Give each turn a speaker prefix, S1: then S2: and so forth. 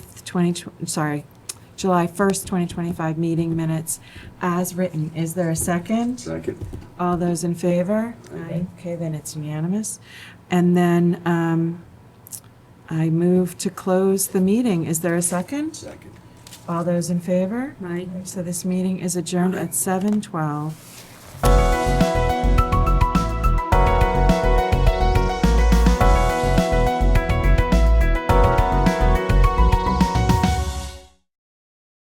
S1: 20, sorry, July 1st, 2025 meeting minutes as written. Is there a second?
S2: Second.
S1: All those in favor?
S2: Aye.
S1: Okay, then it's unanimous. And then um, I move to close the meeting. Is there a second?
S2: Second.
S1: All those in favor?
S3: Aye.
S1: So this meeting is adjourned at 7:12.